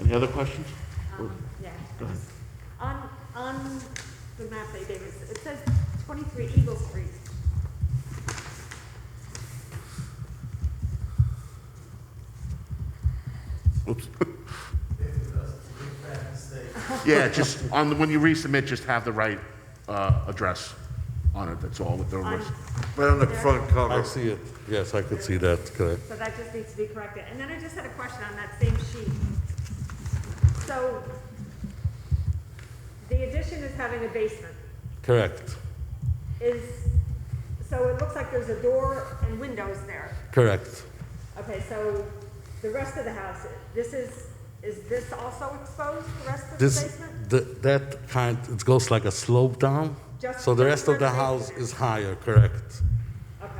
Any other questions? Um, Yeah. Go ahead. On, on the map they gave us, it says 23 Eagle Street. Oops. Yeah, just, on, the- when you resubmit, just have the right, uh, address on it, that's all, with the on- rest. Right on the front I cover. see it, yes, I could see that, correct. So that just needs to be corrected. And then I just had a question on that same sheet. So the addition is having a basement. Correct, Is, so it looks like there's a door and windows there. correct. Okay, so the rest of the house, this is, is this also exposed, the rest of the This, basement? the- that kind, it goes like a slope down, Just- so the just rest of where the the house basement is higher, correct. Okay.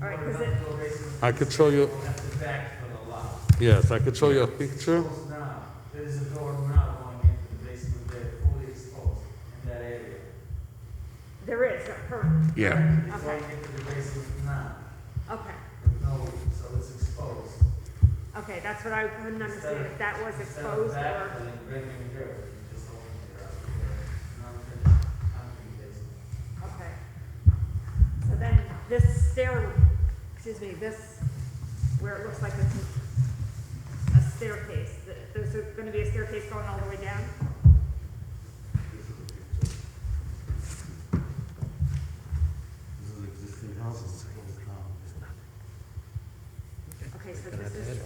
All right, because it, I could show you, That's the back of the lot. yes, I could show you a picture. Close now, there is a door now going into the basement there, fully exposed in that area. there is, currently. Yeah, It's going into the basement now, Okay, with no, so it's exposed. okay, that's what I couldn't understand, if that was Instead of exposed back, or, then bring it here, you just open it up there, non-finished, concrete basement. okay. So then, this stair, excuse me, this, where it looks like it's a staircase, th- there's a- gonna be a staircase going all the way down? Okay, so this is,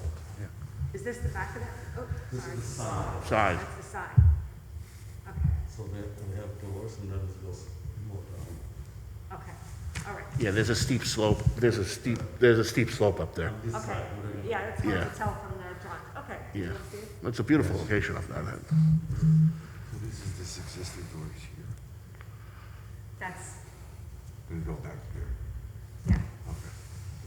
is this the back of that? Oh, This sorry. is the side, side, That's the side. Okay, so we have, we have doors and then it goes more down. okay, all right. yeah, there's a steep slope, there's a steep, there's a steep slope up there. This Okay, side, we're gonna- yeah, that's hard Yeah. to tell from the drawing, okay. Yeah. let's see. It's a beautiful location up there, that- This is this existing door is here. That's, Gonna go back there. yeah,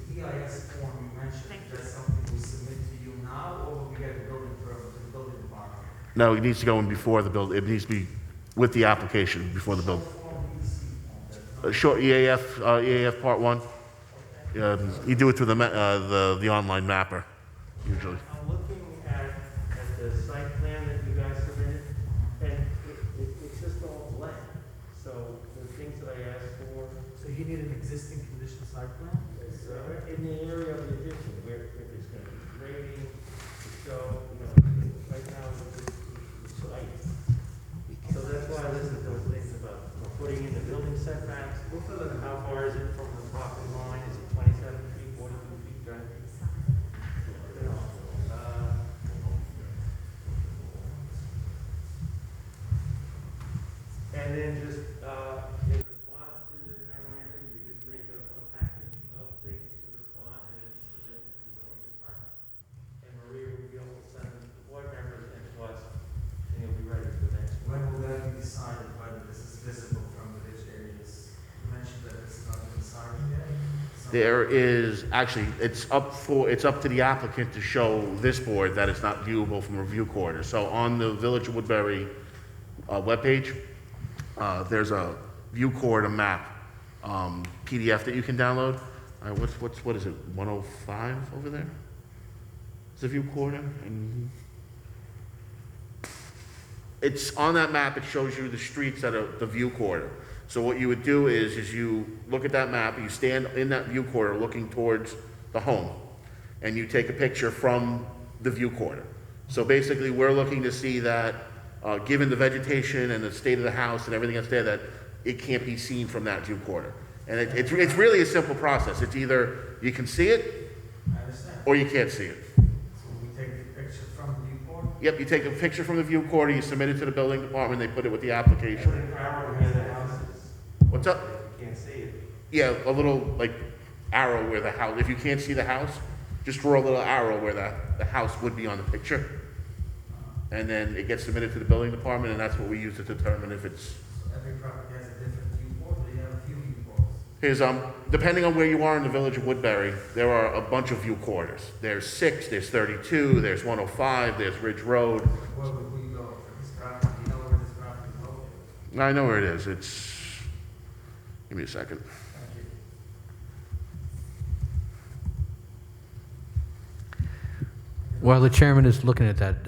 The EIS form you mentioned, Thank you. that's something we submit to you now, or we get a building permit to the building department? No, it needs to go in before the build, it needs to be with the application before the build. A Short EAF, uh, EAF Part 1. Um, You do it through the, ma- uh, the, the online mapper, usually. I'm looking at, at the site plan that you guys submitted, and it, it, it's just all blank. So the things that I asked for So you need an existing condition site plan? is uh, in the area of the addition, where, if it's gonna be grading, to show, you know, right now, it's, it's- it's light. So that's why I listed those things about putting in the building setbacks. How far is it from the property line? Is it twenty-seven feet, forty-two feet, right? You know, uh, And then just, uh, in response to the memorandum, you just make a, a package of things to respond and then submit to the building department. And Maria will be able to send them to the board members and to us, and you'll be ready for the next one. When will that be decided, whether this is visible from the village areas? You mentioned that it's not been decided yet. so- There is, actually, it's up for, it's up to the applicant to show this board that it's not viewable from a view corridor. So on the Village of Woodbury uh, webpage, uh, there's a view corridor map um, PDF that you can download. Uh, What's, what's, what is it, 105 over there? It's a view corridor, and it's on that map, it shows you the streets that are the view corridor. So what you would do is, is you look at that map, you stand in that view corridor looking towards the home, and you take a picture from the view corridor. So basically, we're looking to see that, uh, given the vegetation and the state of the house and everything that's there, that it can't be seen from that view corridor. And it, it's, it's really a simple process. It's either you can see it, I understand. or you can't see it. So we take the picture from the viewport? Yep, you take a picture from the view corridor, you submit it to the building department, they put it with the application. Every priority has the houses. What's up? You can't see it. Yeah, a little like arrow where the house, if you can't see the house, just draw a little arrow where the, the house would be on the picture. And then it gets submitted to the building department and that's what we use to determine if it's, So Every property has a different viewport, or you have a few viewports? here's, um, depending on where you are in the village of Woodbury, there are a bunch of view corridors. There's six, there's thirty-two, there's one oh five, there's Ridge Road. Where would we go for this property? You know where this property is located? I know where it is, it's, give me a second. Thank you. While the chairman is looking at that,